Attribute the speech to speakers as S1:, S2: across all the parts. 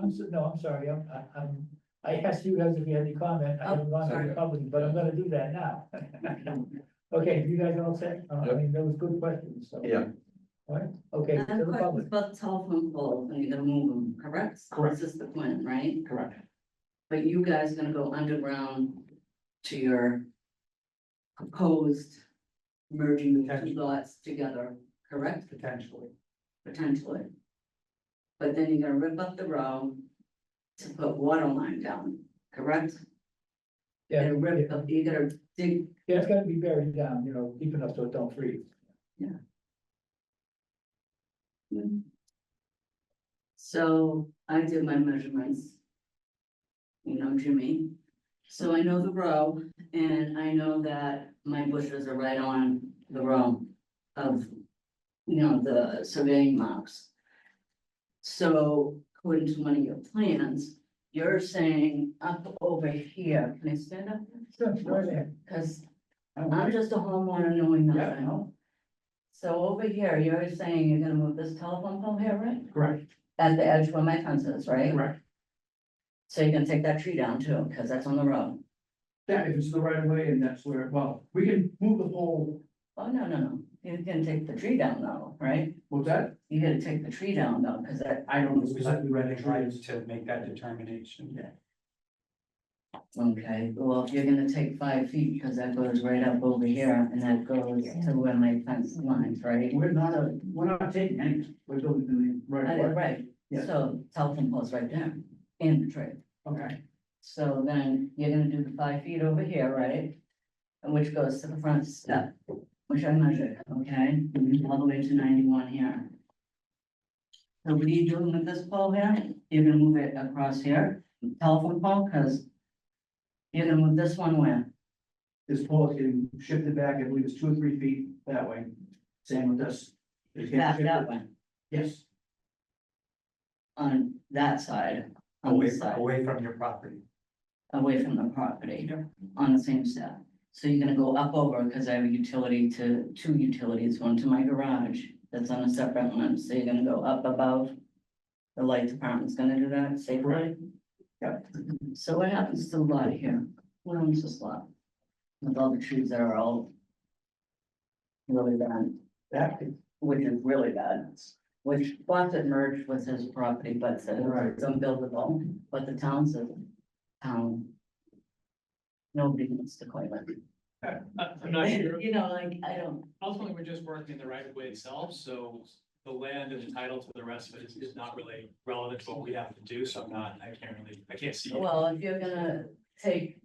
S1: I'm, so- no, I'm sorry, I'm, I- I'm, I asked you guys if you had any comment, I didn't want to be
S2: sorry.
S1: public, but I'm gonna do that now. Okay, you guys all set? Uh, I
S3: Yep.
S1: mean, that was good questions, so.
S3: Yeah.
S1: All right, okay, to the public,
S2: But telephone poles, and you're gonna move them, correct?
S1: Correct.
S2: This is the plan, right?
S1: correct.
S2: But you guys gonna go underground to your proposed merging the two
S1: Potentially.
S2: lots together, correct?
S1: Potentially.
S2: Potentially. But then you're gonna rip up the road to put water line down, correct?
S1: Yeah,
S2: You're gonna
S1: yeah,
S2: rip up, you're gonna dig,
S1: yeah, it's gotta be buried down, you know, deep enough so it don't freeze.
S2: so I did my measurements. You know, Jimmy, so I know the row and I know that my bushes are right on the row of. You know, the surveying marks. So according to one of your plans, you're saying up over here, can I stand up?
S1: Sure, go right ahead.
S2: Cause I'm just a homeowner knowing
S1: Yeah,
S2: nothing. So over here, you're saying you're gonna move this telephone pole here, right?
S1: correct,
S2: At the edge where my fence is, right?
S1: correct.
S2: So you're gonna take that tree down too, cause that's on the road.
S1: That if it's the right way and that's where, well, we can move the whole,
S2: Oh, no, no, no, you're gonna take the tree down though, right?
S1: what's that?
S2: You gotta take the tree down though, cause that,
S4: I don't know exactly where
S1: Right,
S4: they try to make that determination.
S2: okay, well, if you're gonna take five feet, cause that goes right up over here and that goes to where my fence lines, right?
S4: We're not, a- we're not taking anything, we're building the
S2: Uh,
S4: right of way.
S2: Right,
S4: Yeah.
S2: so telephone pole's right there in the tree.
S4: Okay,
S2: So then you're gonna do the five feet over here, right? And which goes to the front step, which I measured, okay,
S4: Mm-hmm.
S2: all the way to ninety-one here. So what are you doing with this pole here? You're gonna move it across here, telephone pole, cause you're gonna move this one where?
S4: this pole can shift it back, I believe it's two or three feet that way, same with this. You can't
S2: Back
S4: shift
S2: that
S4: it-
S2: one,
S4: Yes,
S2: on that side, on
S4: away,
S2: this side,
S4: away from your property.
S2: away from the property, on the same step. So you're gonna go up over, cause I have a utility to, two utilities, one to my garage, that's on a separate one, so you're gonna go up above. The light department's gonna do that safely.
S4: Right. Yep.
S2: So what happens to the lot here? What owns this lot? With all the trees that are all. Really bad,
S4: That could,
S2: which is really bad, which Fawcett merged with his property, but said
S4: Right.
S2: it's unbuildable, but the town said, town. Um, Nobody wants to claim it.
S5: I- Uh, I'm not sure.
S2: You know, like, I don't,
S5: Ultimately, we're just working in the right of way itself, so the land and the title to the rest of it is, is not really relevant to what we have to do, so I'm not, I can't really, I can't see. it.
S2: well, if you're gonna take.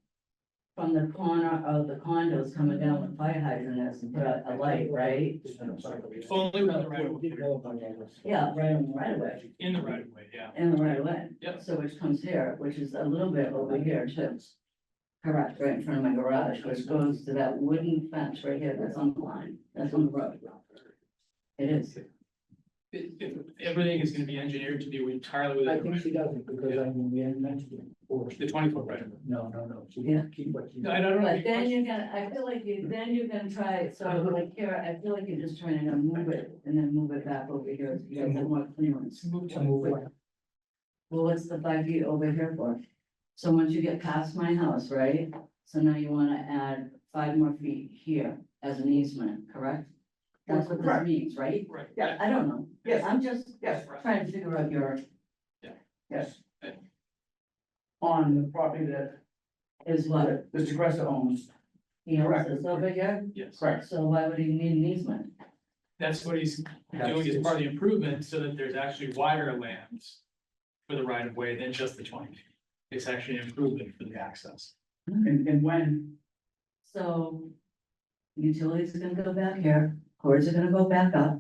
S2: From the corner of the condos coming down with fire hydrant, that's to put out a light, right?
S5: Only with the right of way,
S2: Yeah, right on the right of way,
S5: in the right of way, yeah.
S2: in the right of way.
S5: Yep.
S2: So which comes here, which is a little bit over here too. Correct, right in front of my garage, which goes to that wooden fence right here that's on the line, that's on the road. It is,
S5: If, if everything is gonna be engineered to do entirely
S1: I
S5: within the
S1: think
S5: right,
S1: she doesn't, because I mean, we hadn't mentioned it before.
S5: the twenty foot right of way.
S1: No, no, no, she
S2: Yeah.
S1: didn't keep what she.
S5: No, I don't know.
S2: but then you're gonna, I feel like you, then you're gonna try it, so like here, I feel like you're just trying to move it and then move it back over here, so you have more clearance.
S5: Move
S1: To
S5: to-
S1: move it.
S2: Well, what's the five feet over here for? So once you get past my house, right? So now you wanna add five more feet here as an easement, correct? That's what this
S4: Correct.
S2: means, right?
S5: Right.
S4: Yeah.
S2: I don't know.
S4: Yes.
S2: I'm just
S4: yes,
S2: trying to figure out your,
S4: yes. On the property that,
S2: is what,
S4: that Mr. Gressa owns,
S2: he owns
S4: Correct.
S2: this over here,
S5: Yes,
S4: correct,
S2: so why would he need an easement?
S5: that's what he's doing as part of the improvement, so that there's actually wider land for the right of way than just the twenty feet. It's actually an improvement for the access.
S4: and, and when,
S2: So utilities are gonna go back here, cords are gonna go back up,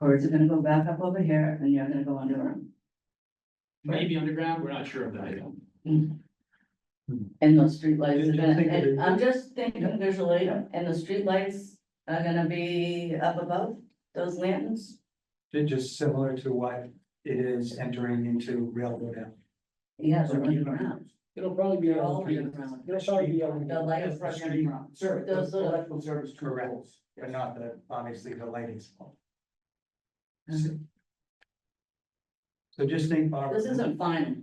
S2: cords are gonna go back up over here, and you're gonna go under them.
S5: Maybe underground, we're not sure of that.
S2: And those streetlights are
S5: You
S2: gonna,
S5: think it
S2: and
S5: is-
S2: I'm just thinking visually, and the streetlights are gonna be up above those lanterns?
S6: They're just similar to what it is entering into railroad. Avenue.
S2: Yeah, they're underground.
S1: It'll probably be.
S2: They're
S1: on
S2: all
S1: the-
S2: underground.
S1: It'll probably be. on
S2: The lights are
S6: Street.
S2: underground.
S4: service,
S2: Those are-
S4: electrical service to
S6: Correct.
S4: poles.
S6: But not the, obviously, the lighting. spot.
S2: Mhm.
S6: So just think. Barbara,
S2: This isn't final.